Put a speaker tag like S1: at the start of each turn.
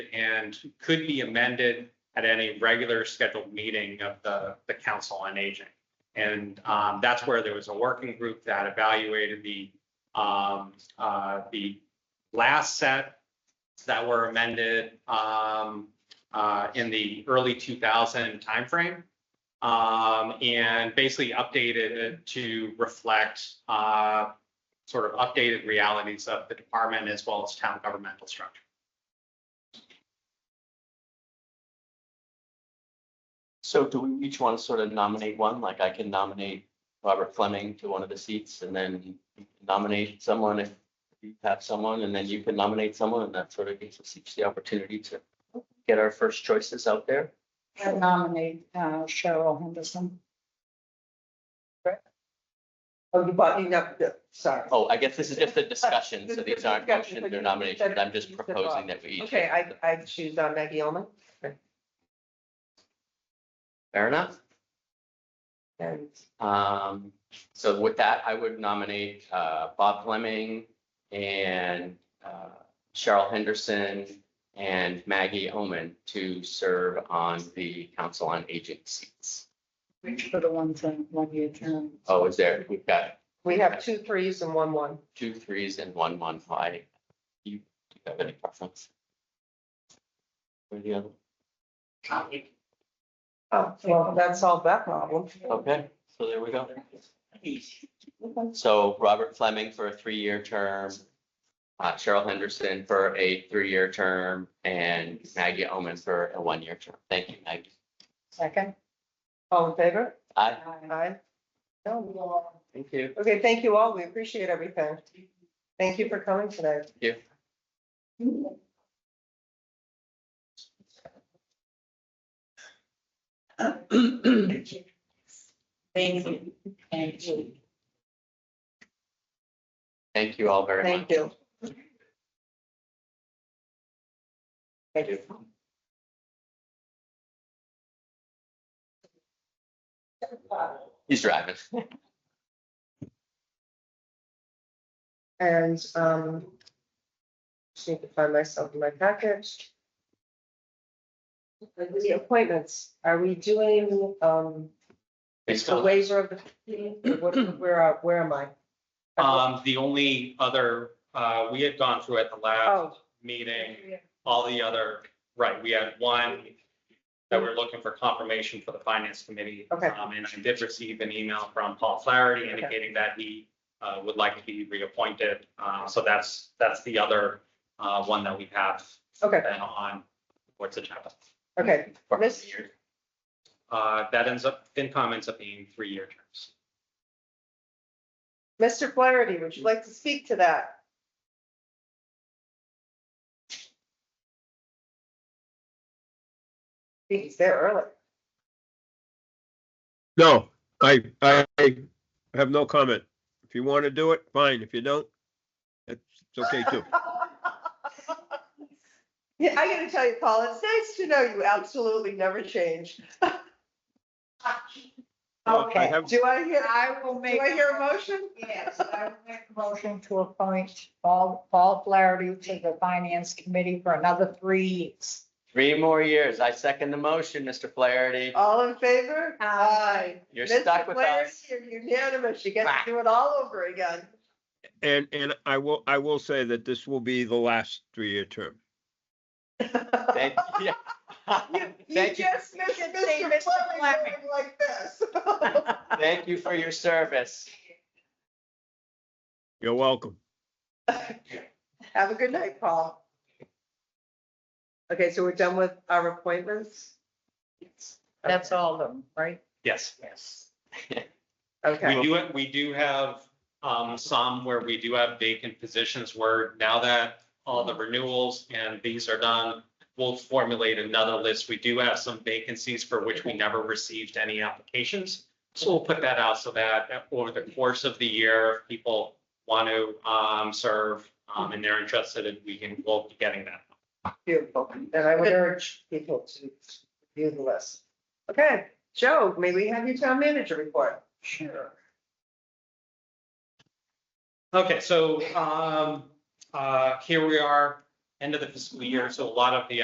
S1: and could be amended at any regular scheduled meeting of the, the Council on Aging. And um, that's where there was a working group that evaluated the, um, uh, the last set that were amended um, uh, in the early 2000 timeframe. um, And basically updated it to reflect uh, sort of updated realities of the department as well as town governmental structure.
S2: So do we each want to sort of nominate one? Like I can nominate Robert Fleming to one of the seats and then nominate someone if you have someone and then you can nominate someone and that sort of gives us each the opportunity to get our first choices out there.
S3: I nominate uh, Cheryl Henderson.
S4: Oh, you bought, you got, yeah, sorry.
S2: Oh, I guess this is just a discussion. So these aren't motions, they're nominations. I'm just proposing that we each.
S4: Okay, I, I choose uh, Maggie Omen
S2: Fair enough.
S4: and
S2: Um, so with that, I would nominate, uh, Bob Fleming and, uh, Cheryl Henderson and Maggie Omen to serve on the Council on Aging seats.
S3: Reach for the ones in one year term.
S2: Oh, is there, we've got
S4: we have two threes and one one.
S2: two threes and one one five. You, do you have any preference? Or the other?
S4: Oh, well, that solved that problem.
S2: Okay, so there we go. So Robert Fleming for a three-year term, uh, Cheryl Henderson for a three-year term, and Maggie Omen for a one-year term. Thank you, Maggie.
S3: Second.
S4: All in favor?
S2: Aye.
S4: Aye. No.
S2: Thank you.
S4: Okay, thank you all. We appreciate everything. Thank you for coming today.
S2: Thank you.
S3: Thank you. Thank you.
S2: Thank you all very much.
S4: Thank you. Thank you.
S2: He's driving.
S4: And, um, just need to find myself in my package. The appointments, are we doing, um,
S2: They
S4: the
S2: still-
S4: ways of the, or what- where, are- where am I?
S1: Um, the only other, uh, we had gone through at the last
S4: Oh,
S1: meeting, all the other, right, we had one that we're looking for confirmation for the finance committee.
S4: Okay.
S1: Um, and I did receive an email from Paul Flaherty
S4: Okay.
S1: indicating that he, uh, would like to be reappointed. Uh, so that's, that's the other, uh, one that we have
S4: okay,
S1: been on, what's the agenda.
S4: okay.
S2: for a
S4: Miss-
S2: year.
S1: Uh, that ends up, FinCom ends up being three-year terms.
S4: Mr. Flaherty, would you like to speak to that? He's there early.
S5: No, I, I I have no comment. If you want to do it, fine. If you don't, it's it's okay too.
S4: Yeah, I gotta tell you, Paul, it's nice to know you absolutely never change.
S5: Well, I
S3: Okay.
S5: have-
S4: Do I hear,
S3: I will
S4: do
S3: make.
S4: I hear a motion?
S3: Yes, I will make a motion to appoint Paul, Paul Flaherty to the Finance Committee for another three years.
S2: Three more years. I second the motion, Mr. Flaherty.
S4: All in favor?
S3: Aye.
S2: You're
S4: Mr.
S2: stuck with
S4: Flaherty,
S2: us.
S4: You're unanimous. You get to do it all over again.
S5: And, and I will, I will say that this will be the last three-year term.
S2: Thank you.
S4: You- You
S2: Thank you,
S4: just missed
S3: You can say
S4: Mr.
S3: Mr.
S4: Flaherty
S3: Fleming.
S4: going like this.
S2: thank you for your service.
S5: You're welcome.
S4: Have a good night, Paul. Okay, so we're done with our appointments?
S3: That's all of them, right?
S1: Yes.
S3: Yes.
S4: Okay.
S1: We do, we do have um, some where we do have vacant positions where now that all the renewals and these are done, we'll formulate another list. We do have some vacancies for which we never received any applications. So we'll put that out so that over the course of the year, if people want to um, serve um, and they're interested, and we can, we'll be getting that.
S4: Beautiful. And I would urge people to view the list. Okay, Joe, may we have your town manager report?
S3: Sure.
S1: Okay, so um, uh, here we are, end of the fiscal year. So a lot of the